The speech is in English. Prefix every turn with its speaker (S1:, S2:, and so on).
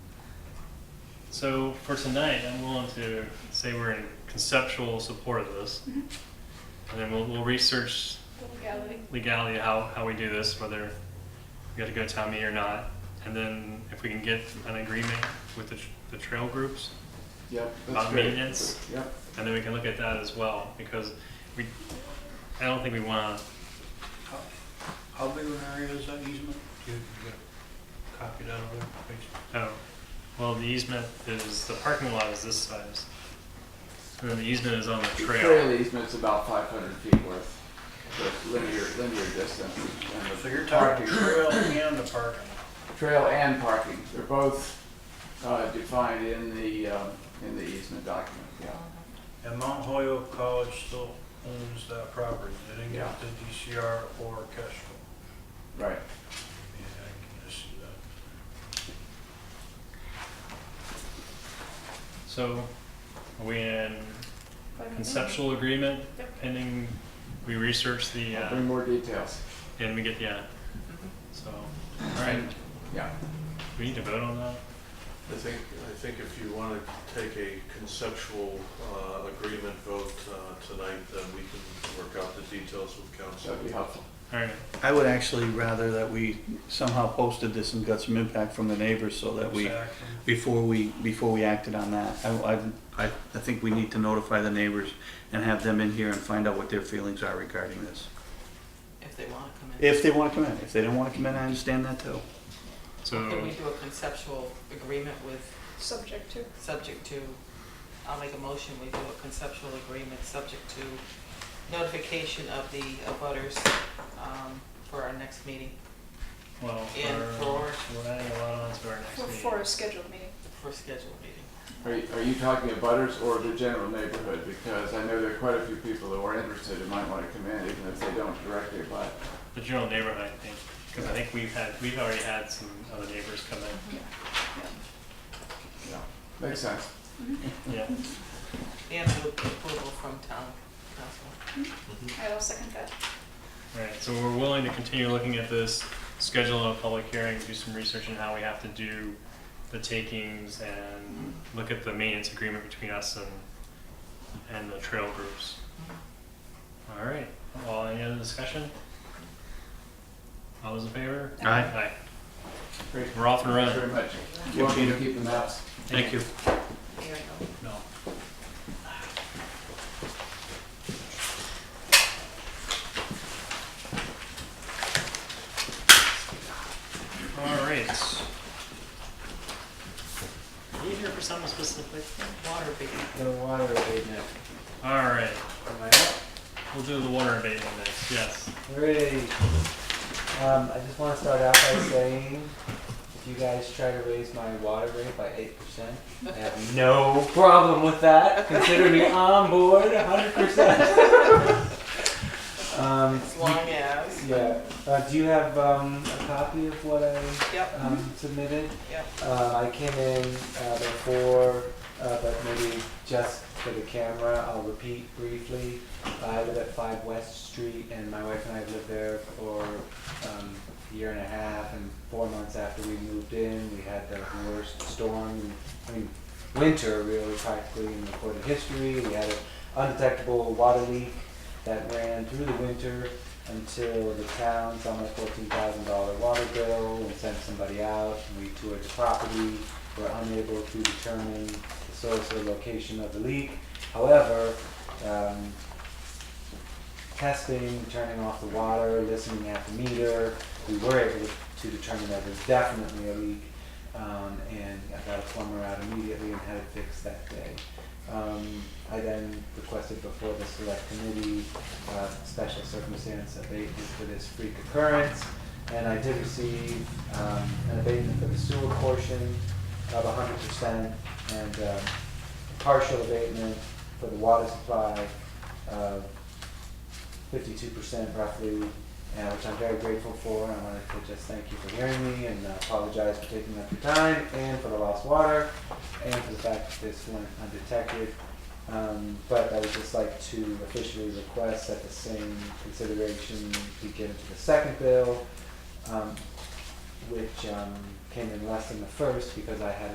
S1: So for tonight, I'm willing to say we're in conceptual support of this. And then we'll, we'll research legality, how, how we do this, whether we got to go to town meeting or not. And then if we can get an agreement with the, tr- the trail groups,
S2: Yep. that's
S1: About
S2: great.
S1: maintenance?
S2: Yep.
S1: and then we can look at that as well, because we, I don't think we want to
S3: How- How big of an area is that easement? Do you, you got a copy down there? Thanks.
S1: Oh, well, the easement is, the parking lot is this size. And then the easement is on the
S2: The
S1: trail.
S2: Trail easement's about five hundred feet worth, so linear, linear distance. and the
S3: So you're
S2: parking-
S3: talking trail and the parking
S2: Trail and parking, they're both, uh, defined in the, um, in the easement document, yeah.
S3: lot. And Mount Holyoke College still owns that property. They didn't
S2: Yeah.
S3: get the DCR or Kestrel.
S2: Right.
S3: Yeah, I can just see that.
S1: So are we in conceptual agreement pending we research the,
S2: I'll
S1: uh,
S2: bring more details.
S1: and we get, yeah. So, all right,
S2: And- Yeah.
S1: we need to vote on that?
S4: I think, I think if you want to take a conceptual uh, agreement vote uh, tonight, then we can work out the details with council.
S2: That'd be helpful.
S1: All right,
S5: I would actually rather that we somehow posted this and got some impact from the neighbors so that we,
S3: Exactly.
S5: before we, before we acted on that. I, I, I I think we need to notify the neighbors and have them in here and find out what their feelings are regarding this.
S6: If they want to come in.
S5: If they wanna come in, if they don't wanna come in, I understand that too.
S6: Can
S1: so,
S6: we do a conceptual agreement with,
S7: Subject to.
S6: subject to, I'll make a motion, we do a conceptual agreement, subject to notification of the abutters um, for our next meeting,
S1: well,
S6: And
S1: for,
S6: for-
S1: we're adding a lot on to our
S7: For,
S1: next
S7: for
S1: meeting.
S7: a scheduled meeting.
S6: for scheduled meeting.
S2: Are you, are you talking about butters or the general neighborhood? Because I know there are quite a few people who are interested and might want to come in, even if they don't directly apply.
S1: The general neighborhood, I think, because I think we've had, we've already had some other neighbors come
S2: Yeah, makes sense.
S1: in, yeah.
S6: And with approval from town council.
S7: I will second that.
S1: Alright, so we're willing to continue looking at this, schedule a public hearing, do some research on how we have to do the takings and look at the maintenance agreement between us and, and the trail groups. Alright, well, any other discussion? All those in favor?
S5: Aye.
S1: Aye.
S2: Great.
S1: We're off and
S2: Thanks
S1: running.
S2: very much. You want me to keep the maps?
S5: Thank you.
S6: There you go.
S3: No.
S1: Alright. Are you here for something specific?
S6: Water being.
S2: The water abatement.
S1: Alright,
S8: Am I up?
S1: we'll do the water abatement next, yes.
S8: Great. Um, I just want to start out by saying, if you guys try to raise my water rate by eight percent, I have no problem with that. Consider me on board hundred percent. Um,
S6: As long as,
S8: yeah, uh, do you have, um, a copy of what I,
S6: yep,
S8: um, submitted?
S6: yep.
S8: Uh, I came in uh, before, uh, but maybe just for the camera, I'll repeat briefly. I live at 5 West Street, and my wife and I lived there for um, a year and a half. And four months after we moved in, we had the worst storm, I mean, winter really practically in recorded history. We had an undetectable water leak that ran through the winter until the town saw my fourteen thousand dollar water bill and sent somebody out. We toured the property, were unable to determine the source or location of the leak. However, um, testing, turning off the water, listening at the meter, we were able to determine that there's definitely a leak. Um, and I got a plumber out immediately and had it fixed that day. Um, I then requested before the select committee uh, special circumstance abatement for this freak occurrence. And I did receive um, an abatement for the sewer portion of hundred percent and um, partial abatement for the water supply of fifty-two percent roughly, uh, which I'm very grateful for. And I wanted to just thank you for hearing me and uh, apologize for taking up your time and for the lost water and for the fact that this went undetected. Um, but I would just like to officially request that the same consideration be given to the second bill, um, which, um, came in less than the first because I had